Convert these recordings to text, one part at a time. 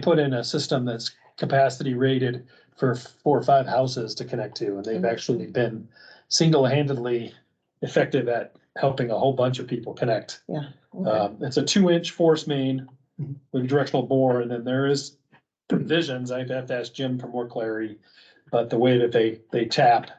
put in a system that's capacity rated for four or five houses to connect to, and they've Mhm. actually been single-handedly effective at helping a whole bunch of people connect. Okay. Mm-hmm. Um, it's a two-inch force main with a directional bore, and then there is provisions, I'd have to ask Jim for more clarity, but the way that they, they tap.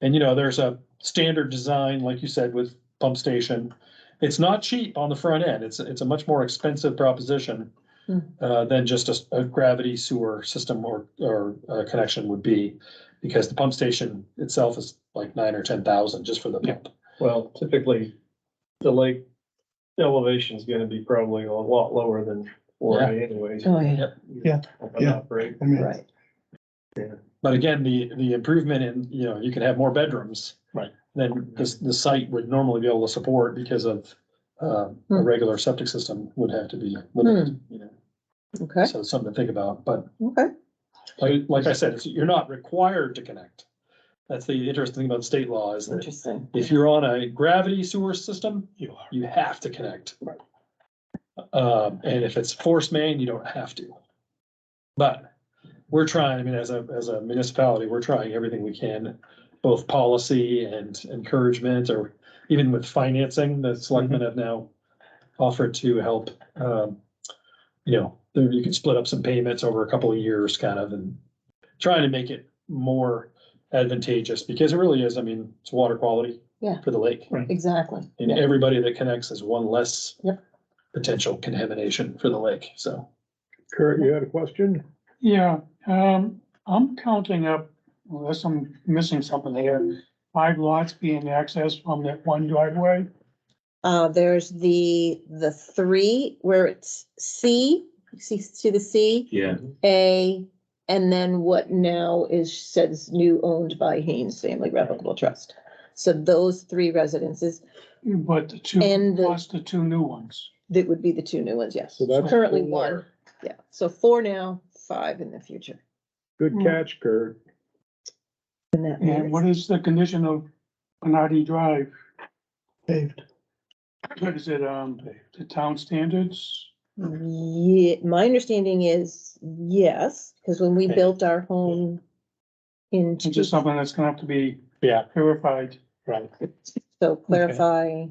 And you know, there's a standard design, like you said, with pump station. It's not cheap on the front end. It's, it's a much more expensive proposition Hmm. uh, than just a, s- a gravity sewer system or, or uh, connection would be. Because the pump station itself is like nine or ten thousand just for the pump. Well, typically, the lake elevation is gonna be probably a lot lower than four A anyways. Oh, yeah, Yeah, Open yeah. operate. I mean, right. But again, the, the improvement in, you know, you can have more bedrooms. Right. Than the, the site would normally be able to support because of, um, a Hmm. regular septic system would have to be limited, you know. Okay, So it's something to think about, but okay. like, like I said, it's- you're not required to connect. That's the interesting thing about state law is that Interesting. if you're on a gravity sewer system, you, you have to connect. Right. Um, and if it's force main, you don't have to. But we're trying, I mean, as a, as a municipality, we're trying everything we can, both policy and encouragement, or even with financing, the selectmen have now offered to help, um, you know, there- you can split up some payments over a couple of years kind of and trying to make it more advantageous because it really is, I mean, it's water quality Yeah. for the lake. Exactly. And Yeah. everybody that connects is one less Yep. potential contamination for the lake, so. Kurt, you had a question? Yeah, um, I'm counting up, unless I'm missing something here, five lots being accessed from that one driveway. Uh, there's the, the three where it's C, you see, see the C, Yeah, A, and then what now is, says new owned by Haynes Family Revocable Trust. So those three residences, But the two, And the- plus the two new ones. that would be the two new ones, yes. So that's Currently four. one, yeah. So four now, five in the future. Good Hmm. catch, Kurt. And that And what matters. is the condition of Bernardi Drive? paved. Is it, um, the town standards? Yeah, my understanding is yes, because when we Okay. built our home in. Is this something that's gonna have to be Yeah, verified? right. So clarify,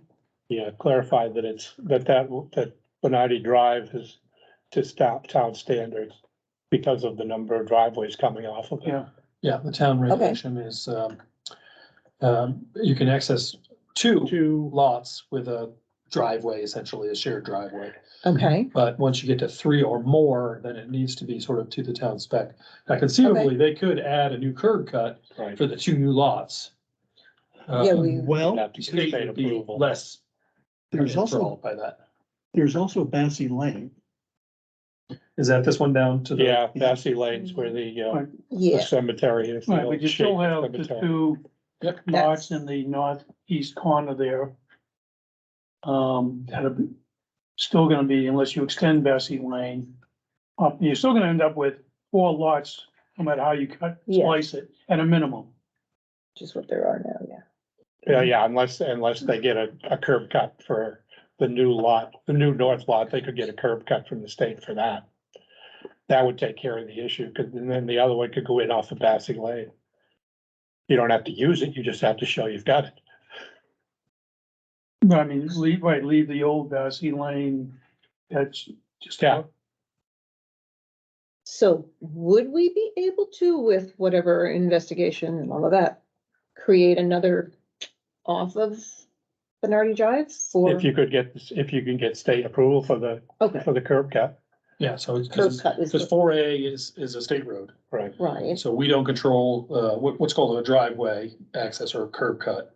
Yeah, clarify that it's, that that, that Benardi Drive is to stop town standards because of the number of driveways coming off of it. Yeah. Yeah, the town regulation is, um, um, you can access two Two, lots with a driveway, essentially a shared driveway. okay, But once you get to three or more, then it needs to be sort of to the town spec. Now conceivably, they could add a new curb cut Right. for the two new lots. yeah, Um, we, You'd Well, have to the get state state would be approval. less there's also, enthralled by that. there's also Bassy Lane. Is that this one down to the? Yeah, Bassy Lanes where the, uh, Right. the yeah, cemetery is. the Right, but old you still shaped have the cemetery. two Yep. lots in the northeast corner there. Um, that are still gonna be, unless you extend Bessie Lane, up, you're still gonna end up with four lots, no matter how you cut, Yeah. slice it, at a minimum. just what there are now, yeah. Yeah, yeah, unless, unless they get a, a curb cut for the new lot, the new north lot, they could get a curb cut from the state for that. That would take care of the issue, because then the other one could go in off the passing lane. You don't have to use it, you just have to show you've got it. But I mean, leave, right, leave the old Bessie Lane, that's just. Yeah. So would we be able to, with whatever investigation and all of that, create another off of Bernardi Drive for, If you could get, if you can get state approval for the, okay, for the curb cut, Yeah, so it's, curb cut is, because four A is, is a state road. right? right, So we don't control, uh, what, what's called a driveway access or a curb cut.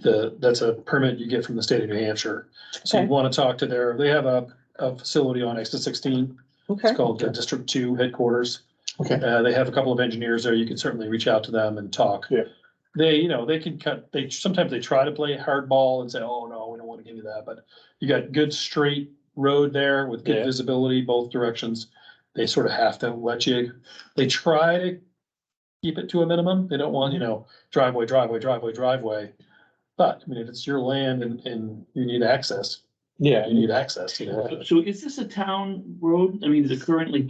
The, that's a permit you get from the state of New Hampshire. So you Okay. want to talk to their, they have a, a facility on exit sixteen. okay, It's called the District Two Headquarters. Okay. Uh, they have a couple of engineers there. You can certainly reach out to them and talk. Yeah. They, you know, they can cut, they, sometimes they try to play hardball and say, oh, no, we don't want to give you that, but you got good straight road there with good Yeah. visibility both directions. They sort of have to let you, they try to keep it to a minimum. They don't want, you know, driveway, driveway, driveway, driveway. But, I mean, if it's your land and, and you need access, Yeah, you need access, you know. so is this a town road? I mean, is it currently